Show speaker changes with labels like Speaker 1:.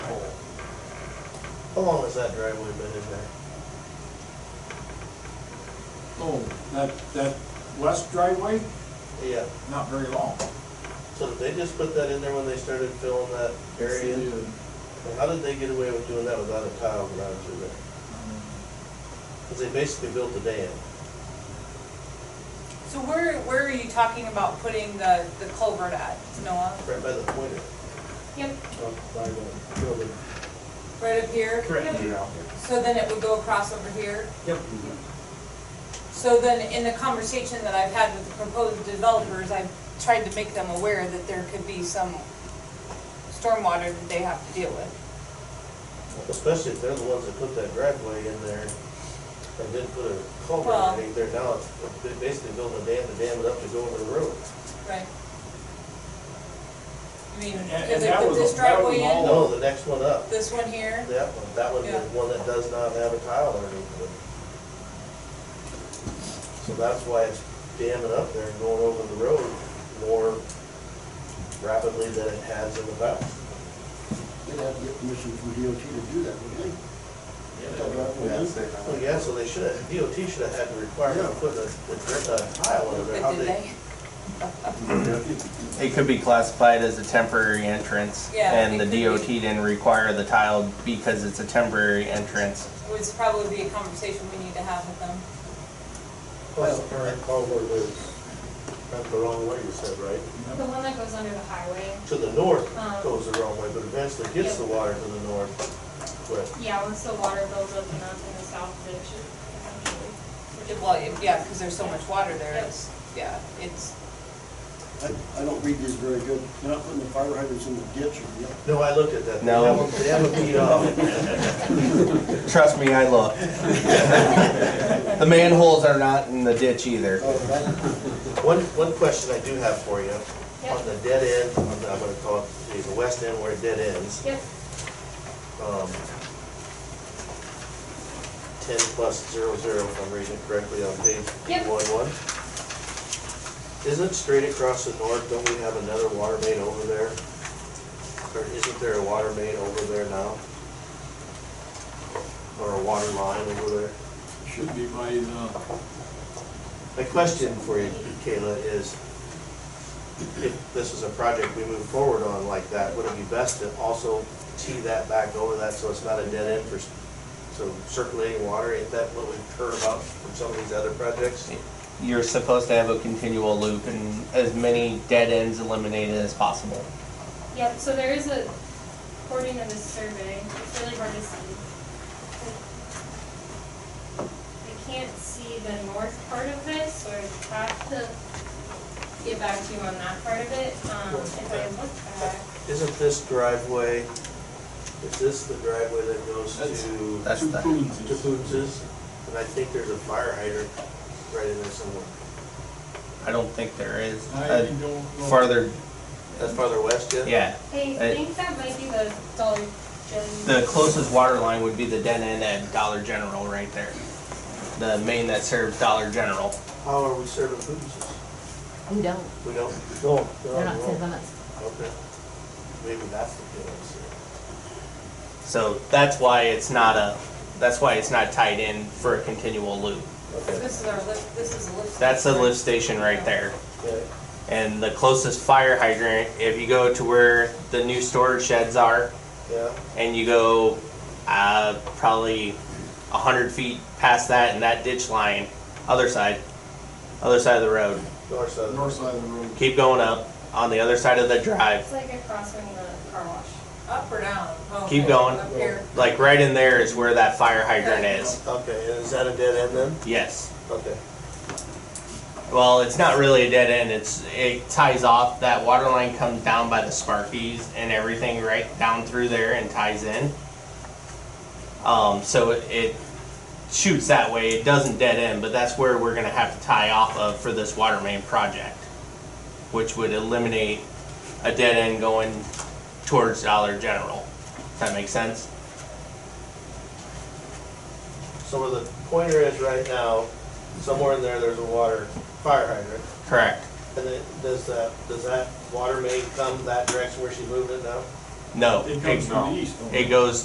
Speaker 1: How long has that driveway been in there?
Speaker 2: Oh, that, that west driveway,
Speaker 1: Yeah,
Speaker 2: not very long.
Speaker 1: so did they just put that in there when they started filling that area?
Speaker 2: It's, uh,
Speaker 1: And how did they get away with doing that without a tile ground through there? Because they basically built a dam.
Speaker 3: So where, where are you talking about putting the, the culvert at, Noah?
Speaker 1: Right by the pointer.
Speaker 3: Yep.
Speaker 1: up by the building.
Speaker 3: Right up here?
Speaker 1: Correct.
Speaker 4: Yeah.
Speaker 3: So then it would go across over here?
Speaker 1: Yep.
Speaker 3: So then, in the conversation that I've had with the proposed developers, I've tried to make them aware that there could be some stormwater that they have to deal with.
Speaker 1: Especially if they're the ones that put that driveway in there and didn't put a culvert
Speaker 3: Well-
Speaker 1: or anything there. Now it's, they basically built a dam to dam it up to go over the road.
Speaker 3: Right. I mean,
Speaker 2: And- and
Speaker 3: because they
Speaker 2: that
Speaker 3: put
Speaker 2: was-
Speaker 3: this
Speaker 2: that was
Speaker 3: driveway in,
Speaker 2: all-
Speaker 1: No, the next one up,
Speaker 3: this one here,
Speaker 1: that one, that one, the
Speaker 3: Yeah.
Speaker 1: one that does not have a tile underneath it. So that's why it's damming up there and going over the road more rapidly than it has in the past.
Speaker 5: They'd have to get permission from DOT to do that, wouldn't
Speaker 4: Yeah,
Speaker 5: they?
Speaker 4: say that.
Speaker 1: Well, yeah, so they should have, DOT should have had to require them to put a, a a tile under there. How'd
Speaker 3: but did they?
Speaker 6: It could be classified as a temporary entrance.
Speaker 3: Yeah,
Speaker 6: And
Speaker 3: it
Speaker 6: the
Speaker 3: could be.
Speaker 6: DOT didn't require the tile because it's a temporary entrance.
Speaker 3: It would probably be a conversation we need to have with them.
Speaker 1: Plus, the current culvert is not the wrong way, you said, right?
Speaker 7: The one that goes under the highway,
Speaker 1: To the north
Speaker 3: Uh-huh.
Speaker 7: Um,
Speaker 1: goes the wrong way, but eventually gets the water to the north. But
Speaker 7: yeah, once the water builds up enough in the south ditch, essentially.
Speaker 3: Yeah, Well, it- yeah, because there's so much water there, it's, yeah, it's,
Speaker 5: I, I don't read these very good. They're not putting the fire hydrants in the ditch or nothing.
Speaker 1: No, I looked at that. They
Speaker 6: No.
Speaker 1: have a- They have a beat off.
Speaker 6: Trust me, I look. The manholes are not in the ditch either.
Speaker 5: Oh, that-
Speaker 1: One, one question I do have for you,
Speaker 7: Yep.
Speaker 1: on the dead end, I'm I'm gonna call it the- the west end where it dead ends,
Speaker 7: Yep,
Speaker 1: um, ten plus zero zero, if I'm reading it correctly on page
Speaker 7: Yep.
Speaker 1: one one. Isn't straight across the north, don't we have another water main over there? Or isn't there a water main over there now? Or a water line over there?
Speaker 2: Should be by uh, the,
Speaker 1: My question for you, Kayla, is if this is a project we move forward on like that, would it be best to also tee that back over that so it's not a dead end for, s- so circulating water, ain't that what we've heard about from some of these other projects?
Speaker 6: You're supposed to have a continual loop and as many dead ends eliminated as possible.
Speaker 7: yep, so there is a, according to this survey, it's really hard to see. I can't see the north part of this, so I have to get back to you on that part of it, um, if I look back.
Speaker 1: Isn't this driveway, is this the driveway that goes to,
Speaker 6: That's
Speaker 2: two
Speaker 6: the-
Speaker 1: to
Speaker 2: coons.
Speaker 1: Boots's? And I think there's a fire hydrant right in there somewhere.
Speaker 6: I don't think there is.
Speaker 2: I
Speaker 6: Uh,
Speaker 2: don't know.
Speaker 6: Farther,
Speaker 1: That's farther west, yeah?
Speaker 6: yeah.
Speaker 7: I
Speaker 6: Uh,
Speaker 7: think that might be the Dollar General.
Speaker 6: The closest water line would be the dead end at Dollar General right there. The main that serves Dollar General.
Speaker 1: How are we serving Boots's?
Speaker 8: We don't.
Speaker 1: We don't? No.
Speaker 8: They're
Speaker 1: Oh,
Speaker 8: not ten minutes.
Speaker 1: Okay. Maybe that's the difference here.
Speaker 6: So that's why it's not a, that's why it's not tied in for a continual loop.
Speaker 3: this is our lift, this is a lift.
Speaker 6: That's the
Speaker 3: station.
Speaker 6: lift station right there.
Speaker 1: Okay.
Speaker 6: And the closest fire hydrant, if you go to where the new storage sheds are
Speaker 1: Yeah,
Speaker 6: and you go uh, probably a hundred feet past that and that ditch line, other side, other side of the road.
Speaker 1: north side.
Speaker 2: North side of the road.
Speaker 6: Keep going up on the other side of the drive.
Speaker 7: It's like across from the car wash.
Speaker 3: Up or down? Oh,
Speaker 6: Keep
Speaker 3: okay,
Speaker 6: going.
Speaker 3: Up here.
Speaker 6: Like right in there is where that fire hydrant is.
Speaker 1: Okay, and is that a dead end then?
Speaker 6: Yes.
Speaker 1: Okay.
Speaker 6: Well, it's not really a dead end. It's it ties off. That water line comes down by the Sparkies and everything right down through there and ties in. Um, so it, it shoots that way. It doesn't dead end, but that's where we're gonna have to tie off of for this water main project, which would eliminate a dead end going towards Dollar General. Does that make sense?
Speaker 1: So where the pointer is right now, somewhere in there, there's a water, fire hydrant.
Speaker 6: Correct.
Speaker 1: And then, does that, does that water main come that direction where she moved it now?
Speaker 6: No.
Speaker 2: It comes from the east. don't
Speaker 6: It goes